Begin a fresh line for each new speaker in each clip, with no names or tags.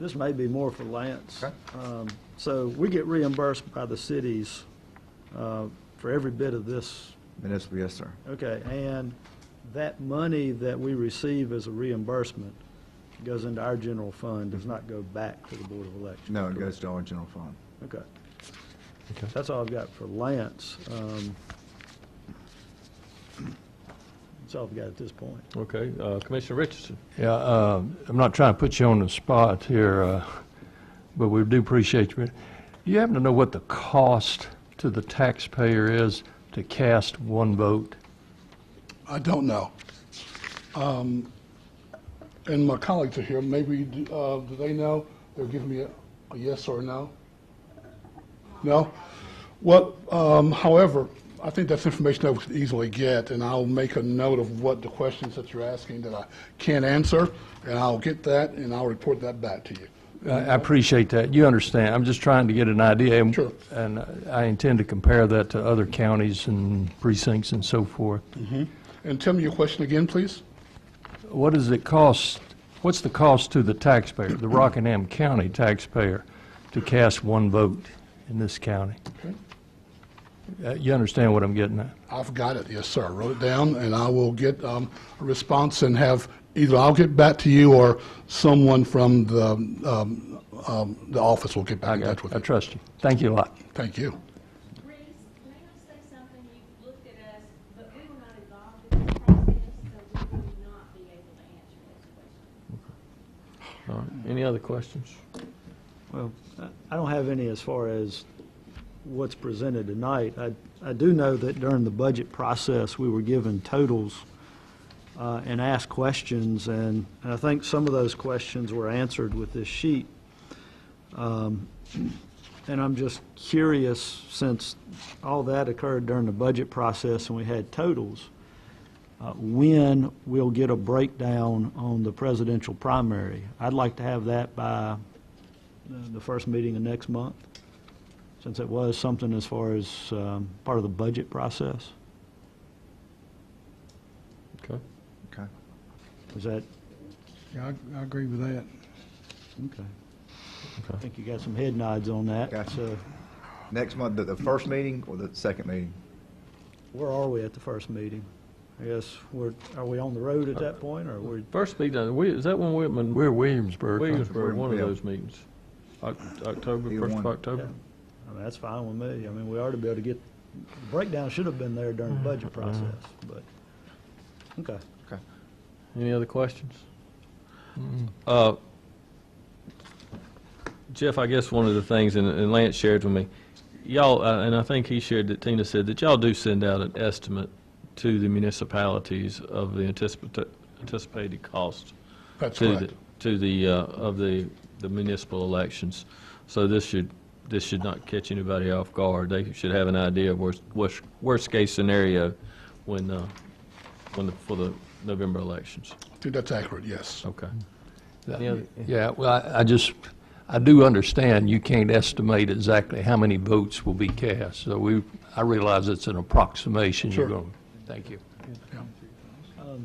This may be more for Lance.
Okay.
Um, So we get reimbursed by the cities uh, for every bit of this.
Municipal, yes, sir.
Okay, and that money that we receive as a reimbursement goes into our general fund, does not go back to the Board of Elections?
No, it
correct?
goes to our general fund.
Okay.
Okay.
That's all I've got for Lance. Um, That's all I've got at this point.
Okay, uh, Commissioner Richardson.
Yeah, uh, I'm not trying to put you on the spot here, uh, but we do appreciate you. Do you happen to know what the cost to the taxpayer is to cast one vote?
I don't know. Um, and my colleagues are here. Maybe uh, do they know? They'll give me a, a yes or a no. No. Well, um, however, I think that's information I could easily get, and I'll make a note of what the questions that you're asking that I can't answer, and I'll get that, and I'll report that back to you.
I I appreciate that. You understand. I'm just trying to get an idea. and-
Sure.
And I intend to compare that to other counties and precincts and so forth.
And tell me your question again, please.
What does it cost, what's the cost to the taxpayer, the Rockingham County taxpayer, to cast one vote in this county?
Okay.
Uh, You understand what I'm getting at?
I've got it, yes, sir. I wrote it down, and I will get um, a response and have, either I'll get back to you or someone from the, um, um, the office will get
I
back in touch
got,
with
I
you.
trust you. Thank you a lot.
Thank you.
Reese, may I say something? You looked at us, but we were not involved in this process, so we would not be able to answer this question.
All right, any other questions?
Well, I- I don't have any as far as what's presented tonight. I, I do know that during the budget process, we were given totals uh, and asked questions, and, and I think some of those questions were answered with this sheet. Um, And I'm just curious, since all that occurred during the budget process and we had totals, uh, when we'll get a breakdown on the presidential primary. I'd like to have that by uh, the- the first meeting of next month, since it was something as far as um, part of the budget process.
Okay.
Okay.
Is that,
Yeah, I agree with that.
okay. I think you got some head nods on that.
Gotcha.
So
Next month, the, the first meeting or the second meeting?
where are we at the first meeting? I guess we're, are we on the road at that point, or we're,
First meeting, uh, we- is that when we're, when
We're Williamsburg.
Williamsburg, one of
Yeah.
those meetings? Oc- October,
Either
first of
one.
October?
I mean, that's fine with me. I mean, we ought to be able to get, the breakdown should have been there during the budget process, but, okay.
Any other questions? Uh, Jeff, I guess one of the things, and- and Lance shared with me, y'all, uh, and I think he shared that Tina said, that y'all do send out an estimate to the municipalities of the anticipat- anticipated cost
That's
to the,
correct.
to the, uh, of the the municipal elections. So this should, this should not catch anybody off guard. They should have an idea of worst, worst, worst-case scenario when, uh, when, the- for the November elections.
I think that's accurate, yes.
Okay. Any
Yeah,
other-
Yeah, well, I- I just, I do understand you can't estimate exactly how many votes will be cast. So we, I realize it's an approximation. You're
Sure.
going. Thank you.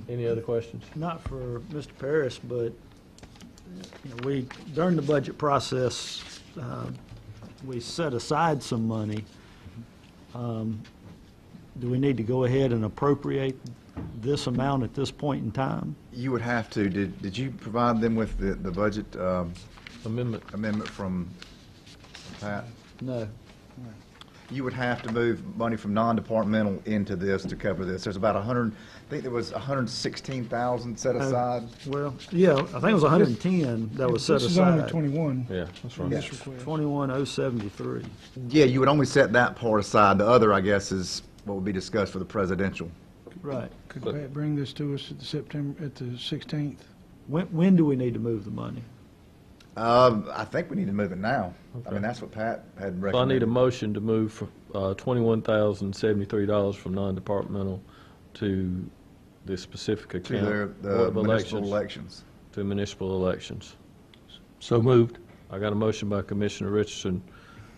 Any other questions?
not for Mr. Paris, but you know, we, during the budget process, uh, we set aside some money. Um, Do we need to go ahead and appropriate this amount at this point in time?
You would have to, did, did you provide them with the, the budget um,
Amendment,
amendment from Pat?
No.
You would have to move money from non-departmental into this to cover this. There's about a hundred, I think there was a hundred and sixteen thousand set aside.
Well, yeah, I think it was 110 that was set
This is only
aside.
twenty-one.
yeah, that's right.
Yeah.
21073.
Yeah, you would only set that part aside. The other, I guess, is what would be discussed for the presidential.
Right.
Could
But-
Pat bring this to us at the September, at the sixteenth?
When, when do we need to move the money?
Um, I think we need to move it now. I mean, that's what Pat had recommended.
So I need a motion to move from uh, $21,073 from non-departmental to the specific
To
account.
their,
Board
the
of
municipal
Elections,
elections.
To municipal elections.
So moved.
I got a motion by Commissioner Richardson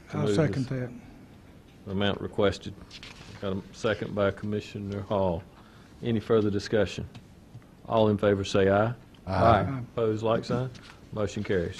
to
I'll
move
second
the
that.
amount requested. Got a second by Commissioner Hall. Any further discussion? All in favor, say aye.
Aye.
Opposed, like sign. Motion carries.